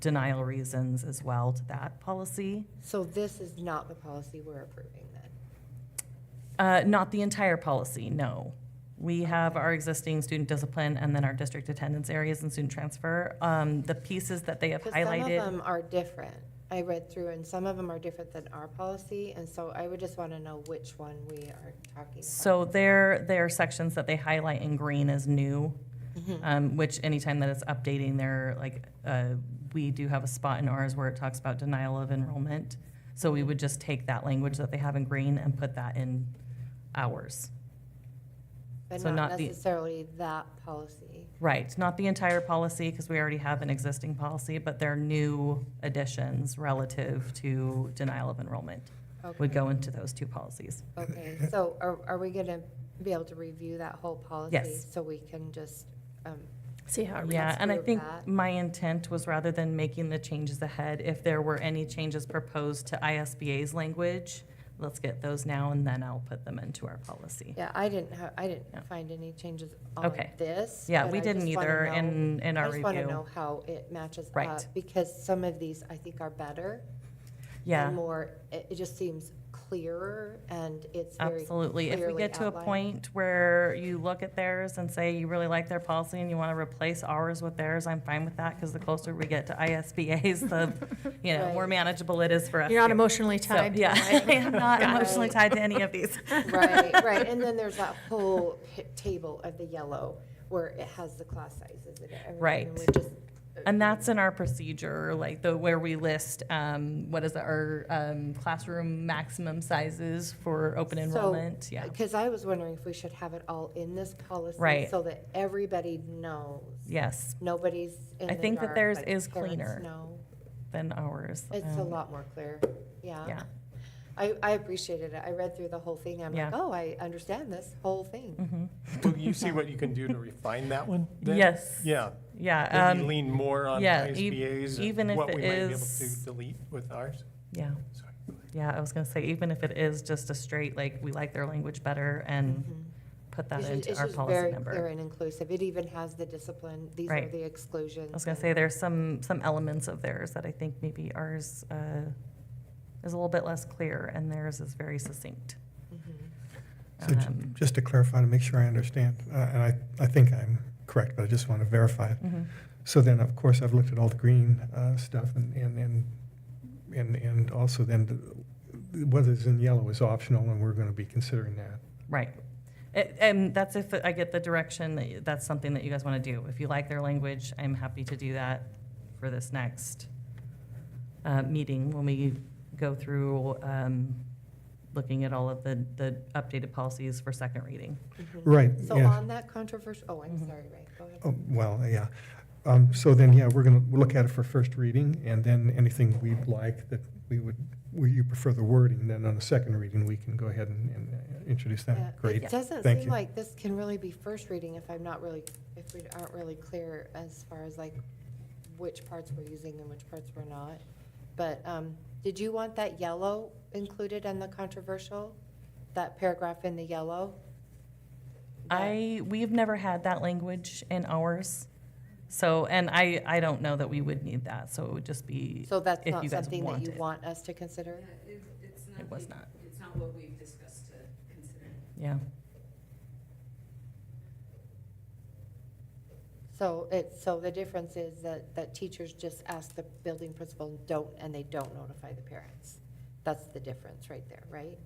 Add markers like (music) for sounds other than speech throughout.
denial reasons as well to that policy. So this is not the policy we're approving then? Uh, Not the entire policy, no. We have our existing student discipline and then our district attendance areas and student transfer. Um, The pieces that they have Because some of highlighted, them are different. I read through and some of them are different than our policy, and so I would just want to know which one we are talking about. so their, their sections that they highlight in green as new, Mm-hmm. um, which anytime that it's updating, they're like, uh, we do have a spot in ours where it talks about denial of enrollment. So we would just take that language that they have in green and put that in ours. But so not not the- necessarily that policy. Right, not the entire policy, because we already have an existing policy, but their new additions relative to denial of enrollment would Okay, go into those two policies. okay. So are, are we going to be able to review that whole policy? Yes. So we can just, um, See how it Yeah, let's and I move think that. my intent was rather than making the changes ahead, if there were any changes proposed to ISBA's language, let's get those now, and then I'll put them into our policy. yeah, I didn't, ha- I Yeah. didn't find any changes on Okay. this. Yeah, but we I didn't just wanna either know- in, in I our just want to review. know how it matches Right. up, because some of these I think are better. Yeah. and more, it, it just seems clearer and it's very. Absolutely. If we clearly get to a outlined. point where you look at theirs and say you really like their policy and you want to replace ours with theirs, I'm fine with that because the closer we get to ISBA's, the, you know, more Right. manageable it is for us. You're not here. emotionally So, tied. to Yeah, (laughs) it. I (laughs) am not Got it. emotionally tied to any of these. (laughs) Right, right, and then there's that whole pi- table of the yellow where it has the class sizes and everything. Right. and we just- And that's in our procedure, like the, where we list, um, what is it, our, um, classroom maximum sizes for open So, enrollment, yeah. uh, Cause I was wondering if we should have it all in this policy. Right. So that everybody knows, Yes, nobody's in I the think that dark, theirs but is parents cleaner. know. than ours. It's a um, lot more clear, yeah. Yeah. I, I appreciated it. I read through the whole thing. I'm like, Yeah. oh, I understand this whole thing. Mm-hmm. Will you see what you can do to refine that one? then? Yes. Yeah, Yeah, maybe um, lean more on yeah, e- ISBA's, even if and what it we might be able is- to delete with ours. yeah. Sorry. Yeah, I was gonna say, even if it is just a straight, like, we like their language better and put that Mm-hmm. It's ju- into it's our just very policy Clear number. and inclusive. It even has the discipline. These are Right. the I exclusions. was gonna and- say, there's some, some elements of theirs that I think maybe ours, uh, is a little bit less clear and theirs is very succinct. Mhm. So j- Um, just to clarify, to make sure I understand, uh, and I, I think I'm correct, but I just want to verify it. mhm. So then, of course, I've looked at all the green uh, stuff and, and, and, and and also then the- what is in yellow is optional and we're going to be considering that. Right. A- And that's if I get the direction, that y- that's something that you guys want to do. If you like their language, I'm happy to do that for this next uh, meeting when we go through um, looking at all of the, the updated policies for second reading. Mhm. Right, So yeah. on that controversial, oh, I'm Mm-hmm. sorry, Ray, go ahead. Oh, Well, yeah. Um, So then, yeah, we're going to look at it for first reading and then anything we like that we would, we- you prefer the wording, then on the second reading, we can go ahead and- and uh, introduce Yeah, that. Great. It doesn't Thank seem you. like this can really be first reading if I'm not really, if we aren't really clear as far as like which parts we're using and which parts we're not. But um, did you want that yellow included in the controversial? That paragraph in the yellow? I, we've never had that language in ours. So, and I, I don't know that we would need that, so it would just be, So that's if not you guys something that want you it. want us to consider? Yeah, it- It's it was nothing- not, It's not what we've discussed to consider. yeah. So it's, so the difference is that, that teachers just ask the building principal and don't, and they don't notify the parents. That's the difference right there, right?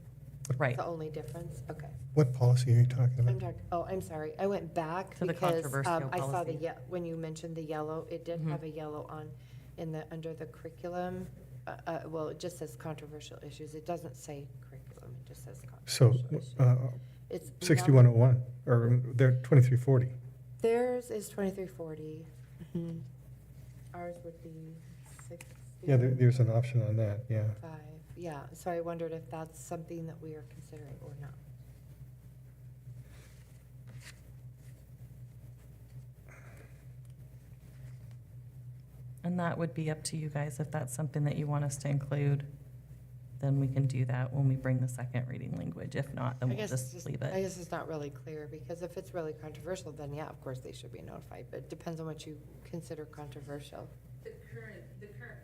Right, The only difference, okay. What policy are you talking I'm about? talking, oh, I'm sorry, I went back To the because um, controversial I saw the, policy. ye- when you mentioned the yellow, it did Mhm. have a yellow on, in the, under the curriculum. Uh, uh, well, it just says controversial issues, it doesn't say curriculum, it just says So controversial issues. uh, It's. 6101, or they're 2340. Theirs is twenty-three forty. Mm-hmm. Ours would be sixty. Yeah, there- there's an option on that, yeah. Five, yeah, so I wondered if that's something that we are considering or not. And that would be up to you guys. If that's something that you want us to include, then we can do that when we bring the second reading language. If not, then I we'll guess it's just just, leave I it. guess it's not really clear, because if it's really controversial, then yeah, of course they should be notified, but it depends on what you consider controversial.